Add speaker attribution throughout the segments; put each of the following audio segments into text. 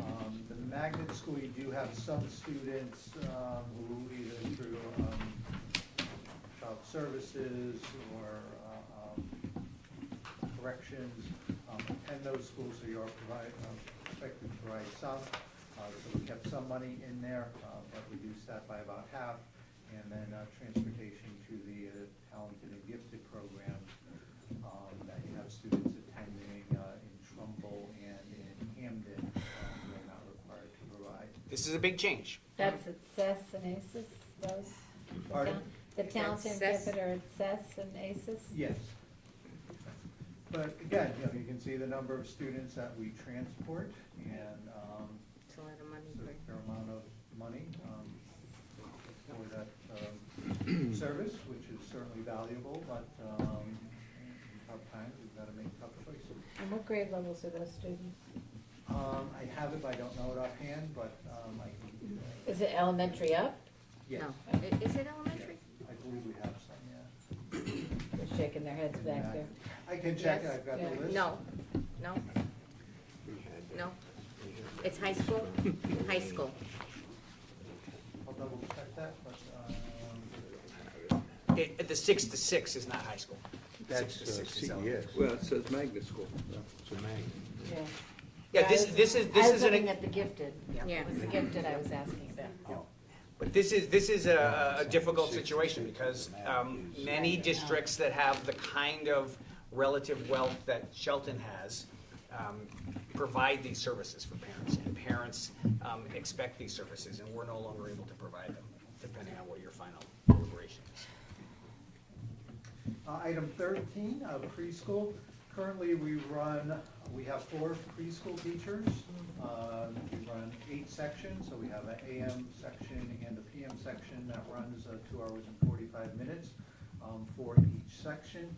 Speaker 1: Um, magnet school, you do have some students, um, who either through, um, child services or, uh, um, corrections, um, attend those schools, so you are provide, um, expected to provide some. Uh, so we kept some money in there, uh, but reduced that by about half. And then, uh, transportation to the uh, talented and gifted program, um, that you have students attending, uh, in Trumbull and in Hamden, um, they're not required to provide.
Speaker 2: This is a big change.
Speaker 3: That's at Cess and ACES, those?
Speaker 1: Pardon?
Speaker 3: The Towns and
Speaker 4: Cess?
Speaker 3: Gifford are at Cess and ACES?
Speaker 1: Yes. But again, you know, you can see the number of students that we transport and, um,
Speaker 4: It's a lot of money
Speaker 1: it's a
Speaker 4: for,
Speaker 1: fair amount of money, um, for that, um, service, which is certainly valuable, but, um, in tough times, we've gotta make tough choices.
Speaker 3: And what grade levels are those students?
Speaker 1: Um, I have it, but I don't know it offhand, but, um, I can,
Speaker 3: Is it elementary up?
Speaker 1: yes.
Speaker 4: no, I- is it elementary?
Speaker 1: Yes, I believe we have some, yeah.
Speaker 3: They're shaking their heads back there.
Speaker 1: I can check it,
Speaker 4: Yes.
Speaker 1: I've got the
Speaker 3: Yeah.
Speaker 1: list.
Speaker 4: No, no, no. It's high school, high school.
Speaker 1: I'll double check that, um, but,
Speaker 2: It, the six to six is not high school.
Speaker 5: That's
Speaker 2: Six to
Speaker 5: uh,
Speaker 2: six is elementary.
Speaker 5: CES.
Speaker 6: Well, it says magnet school.
Speaker 5: It's a magnet.
Speaker 3: Yeah.
Speaker 2: Yeah, this, this is,
Speaker 3: I
Speaker 2: this is,
Speaker 3: was looking
Speaker 2: an
Speaker 3: at the gifted.
Speaker 4: Yeah.
Speaker 3: It was the gifted I was asking about.
Speaker 2: but this is, this is a, a difficult situation because, um, many districts that have the kind of relative wealth that Shelton has, um, provide these services for parents, and parents, um, expect these services, and we're no longer able to provide them, depending on what your final deliberation is.
Speaker 1: uh, item thirteen, uh, preschool. Currently, we run, we have four preschool teachers. Uh, we run eight sections, so we have an AM section and a PM section that runs, uh, two hours and forty-five minutes, um, for each section.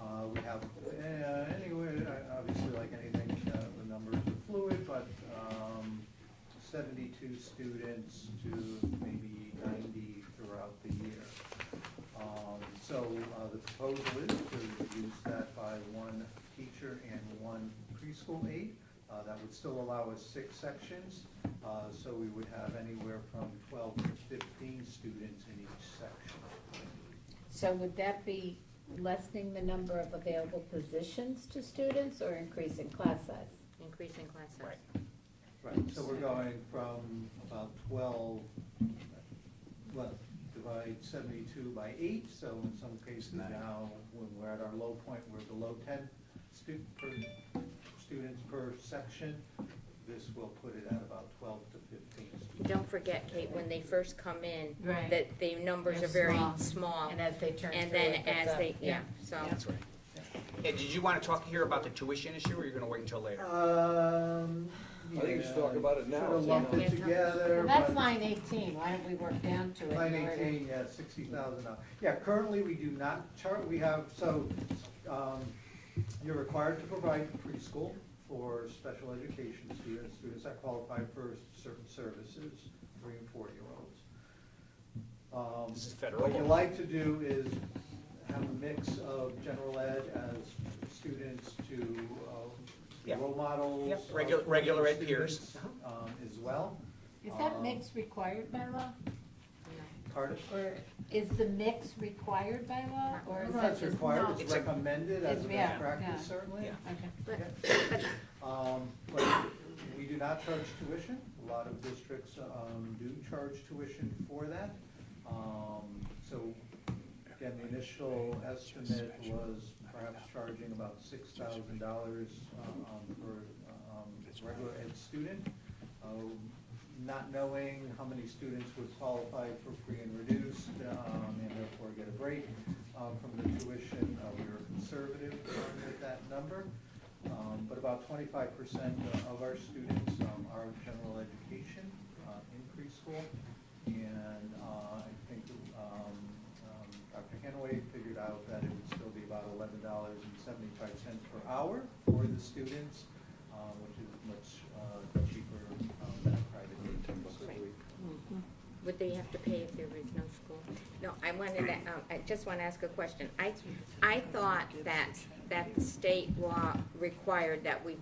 Speaker 1: Uh, we have, uh, anyway, uh, obviously, like anything, uh, the numbers are fluid, but, um, seventy-two students to maybe ninety throughout the year. Um, So uh, the proposal is to reduce that by one teacher and one preschool aide. Uh, That would still allow us six sections, uh, so we would have anywhere from twelve to fifteen students in each section.
Speaker 3: So would that be lessening the number of available positions to students or increasing class size?
Speaker 4: Increase in class size.
Speaker 2: Right.
Speaker 1: Right, so we're going from about twelve, well, divide seventy-two by eight, so in some cases
Speaker 5: Nine.
Speaker 1: now, when we're at our low point, we're below ten stu- per, students per section. This will put it at about twelve to fifteen students.
Speaker 4: Don't forget, Kate, when they first come in,
Speaker 3: Right.
Speaker 4: that the numbers
Speaker 3: They're
Speaker 4: are very
Speaker 3: small.
Speaker 4: small.
Speaker 3: And as they turn
Speaker 4: Um, And
Speaker 3: through,
Speaker 4: then
Speaker 3: it goes
Speaker 4: as
Speaker 3: up.
Speaker 4: they, yeah, so,
Speaker 2: That's right. Yeah, did you wanna talk here about the tuition issue, or you're gonna wait until
Speaker 1: Uh,
Speaker 2: later?
Speaker 1: Um.
Speaker 6: I think we should talk
Speaker 1: yeah,
Speaker 6: about it now.
Speaker 1: Sort of lumped
Speaker 4: Yeah.
Speaker 1: it together,
Speaker 3: Well, that's
Speaker 1: but-
Speaker 3: line eighteen, why don't we work down to it? in
Speaker 1: Line
Speaker 3: order-
Speaker 1: eighteen, yeah, sixty thousand dollars. Yeah, currently, we do not chart, we have, so, um, you're required to provide preschool for special education students, students that qualify for certain services, three and four-year-olds. Um,
Speaker 2: This is federal
Speaker 1: What you
Speaker 2: law.
Speaker 1: like to do is have a mix of general ed as students to, uh,
Speaker 2: Yeah.
Speaker 1: role models.
Speaker 2: Yeah,
Speaker 1: uh,
Speaker 2: regu- regular ed peers.
Speaker 1: students, Um, as well.
Speaker 3: Is that
Speaker 1: Um,
Speaker 3: mix required by law?
Speaker 1: Cardiff?
Speaker 3: Or is the mix required by law, or is
Speaker 1: No,
Speaker 3: that
Speaker 1: it's
Speaker 3: just?
Speaker 1: required, it's
Speaker 2: It's a-
Speaker 1: recommended as a
Speaker 3: It's- yeah,
Speaker 1: best practice,
Speaker 3: yeah.
Speaker 1: certainly.
Speaker 2: Yeah.
Speaker 3: Okay.
Speaker 4: but,
Speaker 1: Okay. Um, but we do not charge tuition, a lot of districts, um, do charge tuition for that. Um, so, again, the initial estimate was perhaps charging about six thousand dollars, um, for, um, regular ed student. Um, Not knowing how many students would qualify for free and reduced, um, and therefore get a break, um, from the tuition, uh, we were conservative um, with that number. Um, But about twenty-five percent of our students um, are in general education uh, in preschool. And uh, I think um, um, Dr. Hanaway figured out that it would still be about eleven dollars and seventy-five cents per hour for the students, uh, which is much uh, cheaper um, than private.
Speaker 5: Ten bucks a week.
Speaker 4: would they have to pay if there was no school? No, I wanted to, um, I just want to ask a question. I, I thought that, that the state law required that we